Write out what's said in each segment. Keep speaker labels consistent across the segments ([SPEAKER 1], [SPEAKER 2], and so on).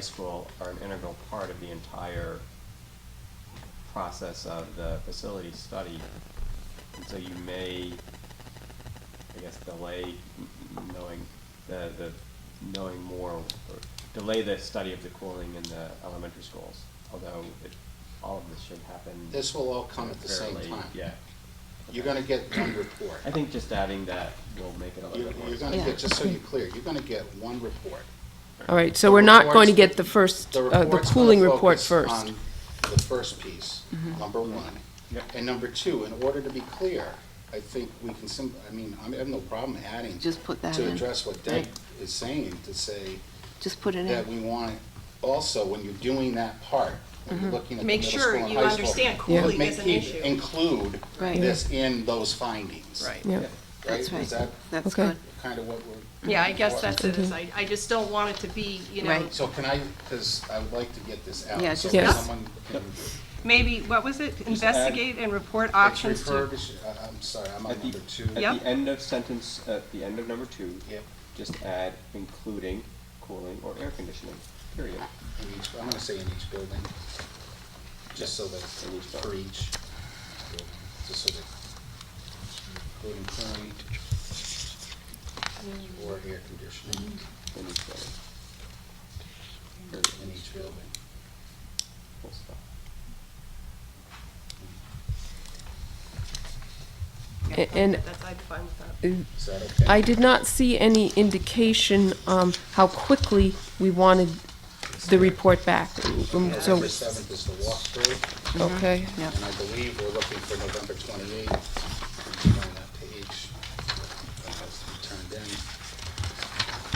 [SPEAKER 1] high school are an integral part of the entire process of the facility study. And so you may, I guess, delay m- m- knowing the, the, knowing more, or delay the study of the cooling in the elementary schools, although it, all of this should happen.
[SPEAKER 2] This will all come at the same
[SPEAKER 1] fairly-
[SPEAKER 2] time.
[SPEAKER 1] Yeah.
[SPEAKER 2] You're gonna get one report.
[SPEAKER 1] I think just adding that will make it a
[SPEAKER 2] You're,
[SPEAKER 1] little bit more.
[SPEAKER 2] you're gonna
[SPEAKER 3] Yeah.
[SPEAKER 2] get, just so you're clear, you're gonna get one report.
[SPEAKER 3] All right,
[SPEAKER 2] The
[SPEAKER 3] so we're not going to
[SPEAKER 2] reports-
[SPEAKER 3] get the first,
[SPEAKER 2] The
[SPEAKER 3] uh, the
[SPEAKER 2] report's gonna
[SPEAKER 3] cooling report
[SPEAKER 2] focus
[SPEAKER 3] first.
[SPEAKER 2] on The first piece, number one.
[SPEAKER 1] Yep.
[SPEAKER 2] And number two, in order to be clear, I think we can sim, I mean, I have no problem adding
[SPEAKER 4] Just put that
[SPEAKER 2] to
[SPEAKER 4] in,
[SPEAKER 2] address what Deb is saying, to say
[SPEAKER 4] just put it
[SPEAKER 2] that
[SPEAKER 4] in.
[SPEAKER 2] we want, also, when you're doing that part, when you're looking at the
[SPEAKER 5] Make
[SPEAKER 2] middle
[SPEAKER 5] sure
[SPEAKER 2] school and high school.
[SPEAKER 5] you understand
[SPEAKER 3] cooling
[SPEAKER 2] make-
[SPEAKER 5] is an
[SPEAKER 2] keep-
[SPEAKER 5] issue.
[SPEAKER 2] Include
[SPEAKER 4] Right.
[SPEAKER 2] this in those findings.
[SPEAKER 5] Right.
[SPEAKER 3] Yeah,
[SPEAKER 2] Right,
[SPEAKER 4] That's
[SPEAKER 2] is
[SPEAKER 4] right,
[SPEAKER 2] that
[SPEAKER 4] that's
[SPEAKER 3] Okay.
[SPEAKER 4] good.
[SPEAKER 2] kind of what we're?
[SPEAKER 5] Yeah, I guess
[SPEAKER 2] for?
[SPEAKER 5] that's it, is I, I just don't want it to be, you know,
[SPEAKER 4] Right.
[SPEAKER 2] So can I, because I would like to get this out.
[SPEAKER 4] Yeah,
[SPEAKER 2] so
[SPEAKER 4] just-
[SPEAKER 3] Yes.
[SPEAKER 2] Someone can
[SPEAKER 5] maybe, what was it?
[SPEAKER 1] add-
[SPEAKER 5] Investigate and report
[SPEAKER 2] it's
[SPEAKER 5] options to.
[SPEAKER 2] refurbish, I- I'm sorry, I'm on
[SPEAKER 1] At the,
[SPEAKER 2] number two.
[SPEAKER 5] Yep.
[SPEAKER 1] at the end of sentence, at the end of number two.
[SPEAKER 2] Yep.
[SPEAKER 1] Just add including cooling or air conditioning, period.
[SPEAKER 2] In each, I'm gonna say in each building, just so that,
[SPEAKER 1] In each
[SPEAKER 2] for each, building, just so that, including cooling or air conditioning
[SPEAKER 1] in each building,
[SPEAKER 2] in each building.
[SPEAKER 1] full stop.
[SPEAKER 5] Yeah,
[SPEAKER 3] and-
[SPEAKER 5] That's, I'd be fine with that.
[SPEAKER 2] Is that okay?
[SPEAKER 3] I did not see any indication um, how quickly we wanted the report back. Um, So,
[SPEAKER 2] November seventh is the walkthrough,
[SPEAKER 3] okay,
[SPEAKER 4] Yep.
[SPEAKER 2] and I believe we're looking for November twenty-eighth. Keep on that page, that has to be turned in. Uh,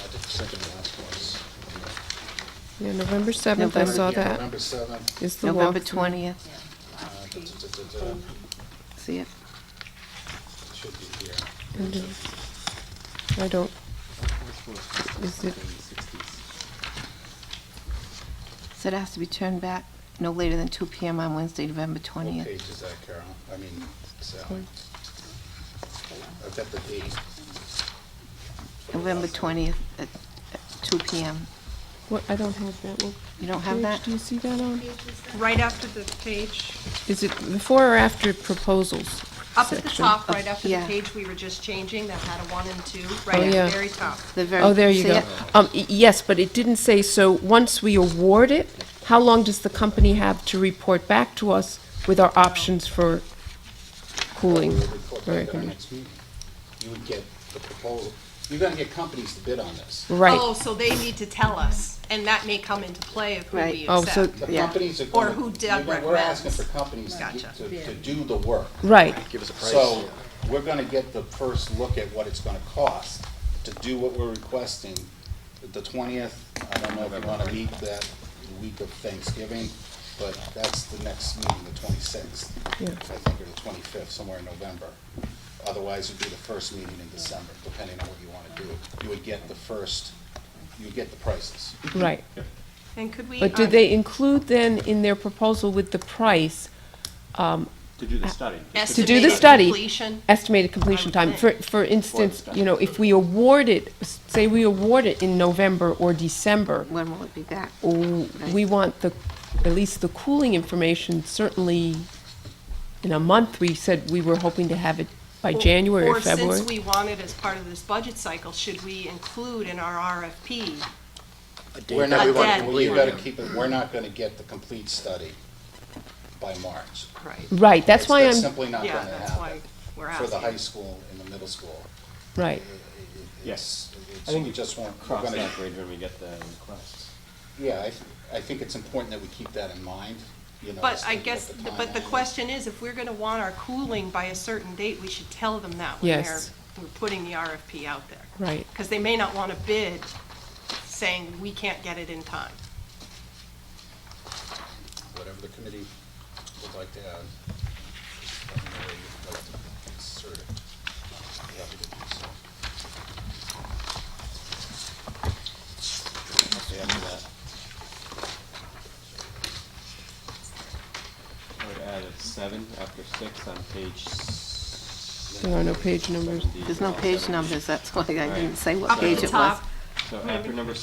[SPEAKER 2] I just think the last one's-
[SPEAKER 3] yeah, November 7th, I saw
[SPEAKER 2] Yeah,
[SPEAKER 3] that,
[SPEAKER 2] November seventh.
[SPEAKER 3] is the walkthrough.
[SPEAKER 4] November twentieth,
[SPEAKER 2] uh, duh, duh, duh, duh, duh,
[SPEAKER 4] see it?
[SPEAKER 2] Should be here.
[SPEAKER 3] And, uh, I don't, is it,
[SPEAKER 4] So it has to be turned back no later than two PM on Wednesday, November
[SPEAKER 2] What
[SPEAKER 4] twentieth.
[SPEAKER 2] page is that, Carol? I mean, Sally. I've got the date.
[SPEAKER 4] November twentieth at at two PM.
[SPEAKER 3] what, I don't have that. What
[SPEAKER 4] You don't have
[SPEAKER 3] page
[SPEAKER 4] that?
[SPEAKER 3] Do you see that on?
[SPEAKER 5] Right after the page,
[SPEAKER 3] Is it before or after proposals?
[SPEAKER 5] up at the
[SPEAKER 3] section?
[SPEAKER 5] top, right after the
[SPEAKER 4] Yeah.
[SPEAKER 5] page we were just changing, that had a one and two, right at
[SPEAKER 3] Oh, yeah.
[SPEAKER 5] the very top.
[SPEAKER 4] The very-
[SPEAKER 3] Oh, there you
[SPEAKER 4] see
[SPEAKER 3] go.
[SPEAKER 4] it?
[SPEAKER 3] Um, y- yes, but it didn't say, so once we award it, how long does the company have to report back to us with our options for cooling?
[SPEAKER 2] We'll report
[SPEAKER 3] or air
[SPEAKER 2] back at our
[SPEAKER 3] conditioning?
[SPEAKER 2] next meeting. You would get the proposal. You're gonna get companies to bid on this.
[SPEAKER 5] Oh,
[SPEAKER 3] Right,
[SPEAKER 5] so they need to tell us, and that may come into play of who we
[SPEAKER 4] Right.
[SPEAKER 3] Oh, so-
[SPEAKER 5] accept.
[SPEAKER 2] The
[SPEAKER 4] Yeah.
[SPEAKER 2] companies are
[SPEAKER 5] Or
[SPEAKER 2] gonna.
[SPEAKER 5] who Doug
[SPEAKER 2] you're gonna- We're asking
[SPEAKER 5] recommends.
[SPEAKER 2] for companies to
[SPEAKER 5] Gotcha.
[SPEAKER 2] get- to, to do the work.
[SPEAKER 3] right,
[SPEAKER 6] Give us a price.
[SPEAKER 2] So, we're gonna get the first look at what it's gonna cost to do what we're requesting. The twentieth, I don't know if you wanna meet that week of Thanksgiving, but that's the next meeting, the twenty-sixth.
[SPEAKER 3] Yeah.
[SPEAKER 2] I think, or the twenty-fifth, somewhere in November. Otherwise, it'd be the first meeting in December, depending on what you wanna do. You would get the first, you would get the prices.
[SPEAKER 3] right.
[SPEAKER 5] And could we,
[SPEAKER 3] But do
[SPEAKER 5] um,
[SPEAKER 3] they include then in their proposal with the price,
[SPEAKER 1] To do the
[SPEAKER 3] Uh,
[SPEAKER 1] study. just
[SPEAKER 3] to do the
[SPEAKER 5] Estimated
[SPEAKER 3] study?
[SPEAKER 5] completion.
[SPEAKER 3] Estimated completion time, for, for instance, you know, if we award it, say we award it in November or December,
[SPEAKER 4] When will it be back?
[SPEAKER 3] w- we want the, at least the cooling information, certainly in a month, we said we were hoping to have it by
[SPEAKER 5] Or-
[SPEAKER 3] January or
[SPEAKER 5] Or
[SPEAKER 3] February.
[SPEAKER 5] since we want it as part of this budget cycle, should we include in our RFP?
[SPEAKER 2] We're not,
[SPEAKER 5] that we
[SPEAKER 2] we
[SPEAKER 5] want to
[SPEAKER 2] want- you better keep it, we're not gonna get the complete study by March.
[SPEAKER 5] Right,
[SPEAKER 3] Right, that's why
[SPEAKER 2] That's
[SPEAKER 3] I'm,
[SPEAKER 2] simply not
[SPEAKER 5] yeah,
[SPEAKER 2] gonna
[SPEAKER 5] that's why
[SPEAKER 2] happen
[SPEAKER 5] we're
[SPEAKER 2] for
[SPEAKER 5] asking.
[SPEAKER 2] the high school and the middle school.
[SPEAKER 3] right,
[SPEAKER 1] Yes.
[SPEAKER 2] It's-
[SPEAKER 1] I think
[SPEAKER 2] we
[SPEAKER 1] you just
[SPEAKER 2] just won't, we're
[SPEAKER 1] cross
[SPEAKER 2] gonna,
[SPEAKER 1] that bridge when we get the requests.
[SPEAKER 2] yeah, I, th- I think it's important that we keep that in mind, you know.
[SPEAKER 5] But
[SPEAKER 2] as
[SPEAKER 5] I
[SPEAKER 2] to what
[SPEAKER 5] guess,
[SPEAKER 2] the
[SPEAKER 5] but the
[SPEAKER 2] timeline is.
[SPEAKER 5] question is, if we're gonna want our cooling by a certain date, we should tell them that when they're,
[SPEAKER 3] Yes.
[SPEAKER 5] we're putting the RFP out there.
[SPEAKER 3] right.
[SPEAKER 5] Because they may not wanna bid saying, we can't get it in time.
[SPEAKER 2] Whatever the committee would like to add. let me know where you'd like to insert it. I'd be happy to do so. Okay, after that.
[SPEAKER 1] I would add a seven after six on page. s-
[SPEAKER 3] There are no page numbers.
[SPEAKER 1] seven D,
[SPEAKER 4] There's no
[SPEAKER 1] all
[SPEAKER 4] page
[SPEAKER 1] Oh, seven.
[SPEAKER 4] numbers, that's why I
[SPEAKER 1] Right.
[SPEAKER 4] didn't say what
[SPEAKER 5] Up at
[SPEAKER 4] page
[SPEAKER 5] the
[SPEAKER 4] it was.
[SPEAKER 5] top,
[SPEAKER 1] So after number